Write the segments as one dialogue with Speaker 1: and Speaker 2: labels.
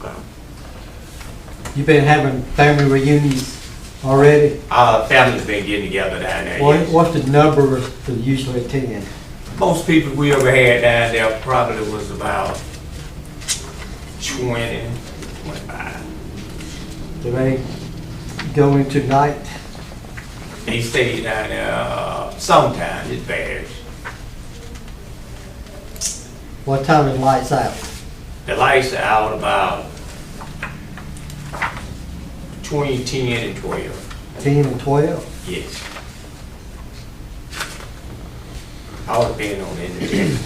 Speaker 1: So,
Speaker 2: You've been having family reunions already?
Speaker 1: uh, family's been getting together down there.
Speaker 2: What,
Speaker 1: Uh, yes.
Speaker 2: what's the number that usually attend?
Speaker 1: Most people we ever had down there probably was about 20, 25.
Speaker 2: Do they go into night?
Speaker 1: They stayed down there, uh, sometimes it varies.
Speaker 2: What time it lights out?
Speaker 1: The lights are out about between 10 and 12,
Speaker 2: Ten and twelve?
Speaker 1: yes. All depending on the individual.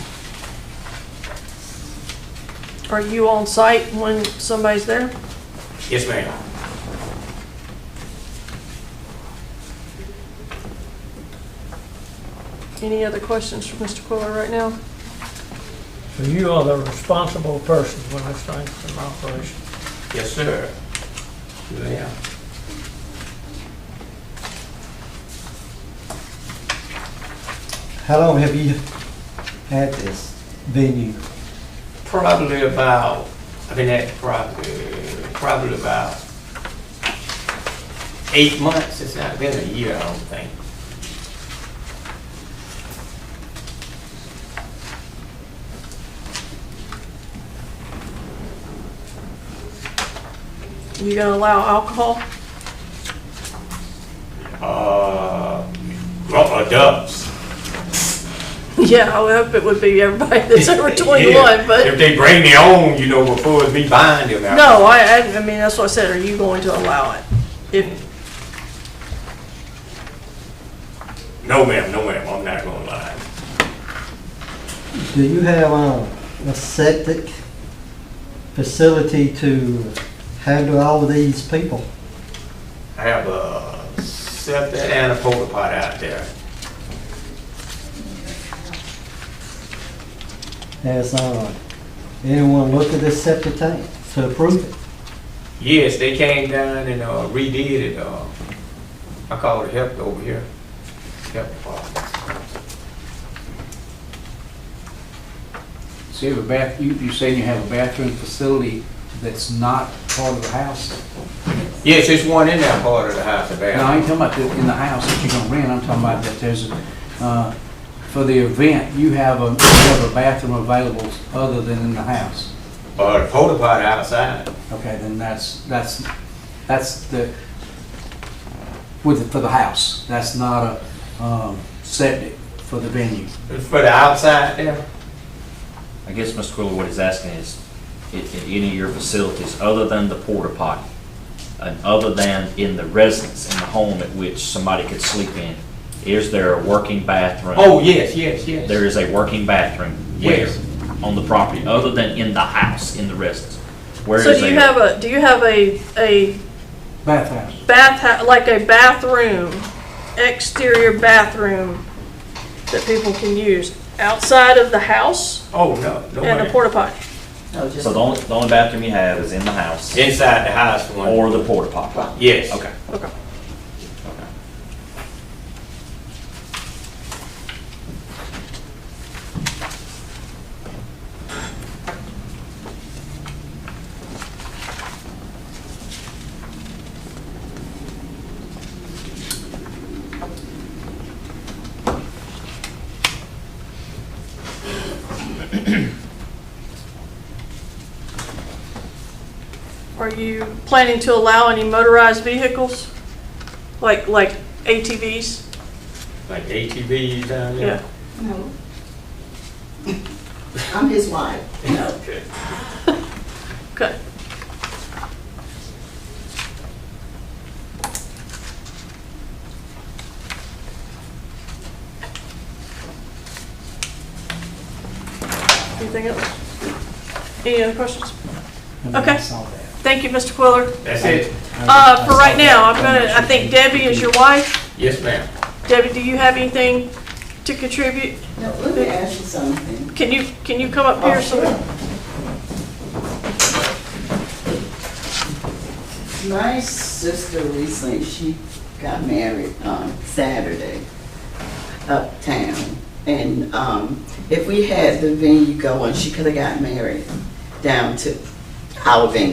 Speaker 3: Are you on site when somebody's there?
Speaker 1: Yes, ma'am.
Speaker 3: Any other questions for Mr. Quiller right now?
Speaker 4: So you are the responsible person when this thing's in operation.
Speaker 1: Yes, sir. Yeah.
Speaker 2: How long have you had this venue?
Speaker 1: Probably about, I've been at probably, probably about eight months, it's not been a year, I don't think.
Speaker 3: You gonna allow alcohol?
Speaker 1: Uh, well, adults.
Speaker 3: Yeah, I would hope it would be everybody that's over twenty-one,
Speaker 1: If
Speaker 3: but,
Speaker 1: they bring their own, you know, before it's me buying them out.
Speaker 3: no, I, I, I mean, that's what I said, are you going to allow it? If,
Speaker 1: No, ma'am, no, ma'am, I'm not gonna lie.
Speaker 2: Do you have um, a septic facility to handle all of these people?
Speaker 1: I have a septic and a porta pot out there.
Speaker 2: Has uh, anyone looked at this septic tank to approve it?
Speaker 1: Yes, they came down and uh, redid it. uh, I called the help over here. Help department.
Speaker 5: So you have a bath, you, you're saying you have a bathroom facility that's not part of the house?
Speaker 1: Yes, there's one in that part of the house, the
Speaker 5: No, I
Speaker 1: bathroom.
Speaker 5: ain't talking about the- in the house that you're gonna rent, I'm talking about that there's, uh, for the event, you have a, you have a bathroom available other than in the house.
Speaker 1: But the porta potty outside.
Speaker 5: Okay, then that's, that's, that's the, with, the- for the house, that's not a, um, septic for the venue.
Speaker 1: For the outside there,
Speaker 6: I guess, Mr. Quiller, what he's asking is, i- in any of your facilities, other than the porta potty, and other than in the residence, in the home at which somebody could sleep in, is there a working bathroom?
Speaker 1: oh, yes, yes, yes.
Speaker 6: There is a working bathroom? Where?
Speaker 1: Yes.
Speaker 6: On the property, other than in the house, in the residence? Where
Speaker 3: so
Speaker 6: is
Speaker 3: do you
Speaker 6: a-
Speaker 3: have a, do you have a, a
Speaker 5: Bathhouse.
Speaker 3: bath, like a bathroom, exterior bathroom that people can use outside of the house
Speaker 1: Oh, no, no,
Speaker 3: and a
Speaker 1: ma'am.
Speaker 3: porta potty?
Speaker 6: So the only, the only bathroom you have is in the house
Speaker 1: Inside the house one.
Speaker 6: or the porta potty?
Speaker 1: Yes.
Speaker 6: Okay.
Speaker 3: Okay.
Speaker 6: Okay.
Speaker 3: Are you planning to allow any motorized vehicles? Like, like ATVs?
Speaker 1: Like ATVs down
Speaker 3: Yeah.
Speaker 1: there.
Speaker 7: No. I'm his wife.
Speaker 1: Okay.
Speaker 3: Okay. Anything else? Any other questions? Okay.
Speaker 5: Saw that.
Speaker 3: Thank you, Mr. Quiller.
Speaker 1: That's it.
Speaker 3: Uh, for right now, I'm gonna, I think Debbie is your wife.
Speaker 1: Yes, ma'am.
Speaker 3: Debbie, do you have anything to contribute?
Speaker 7: Now, let me ask you something.
Speaker 3: Can you, can you come up
Speaker 7: Oh,
Speaker 3: here so we
Speaker 7: My sister recently, she got married on Saturday uptown. And um, if we had the venue going, she could have got married down to our venue.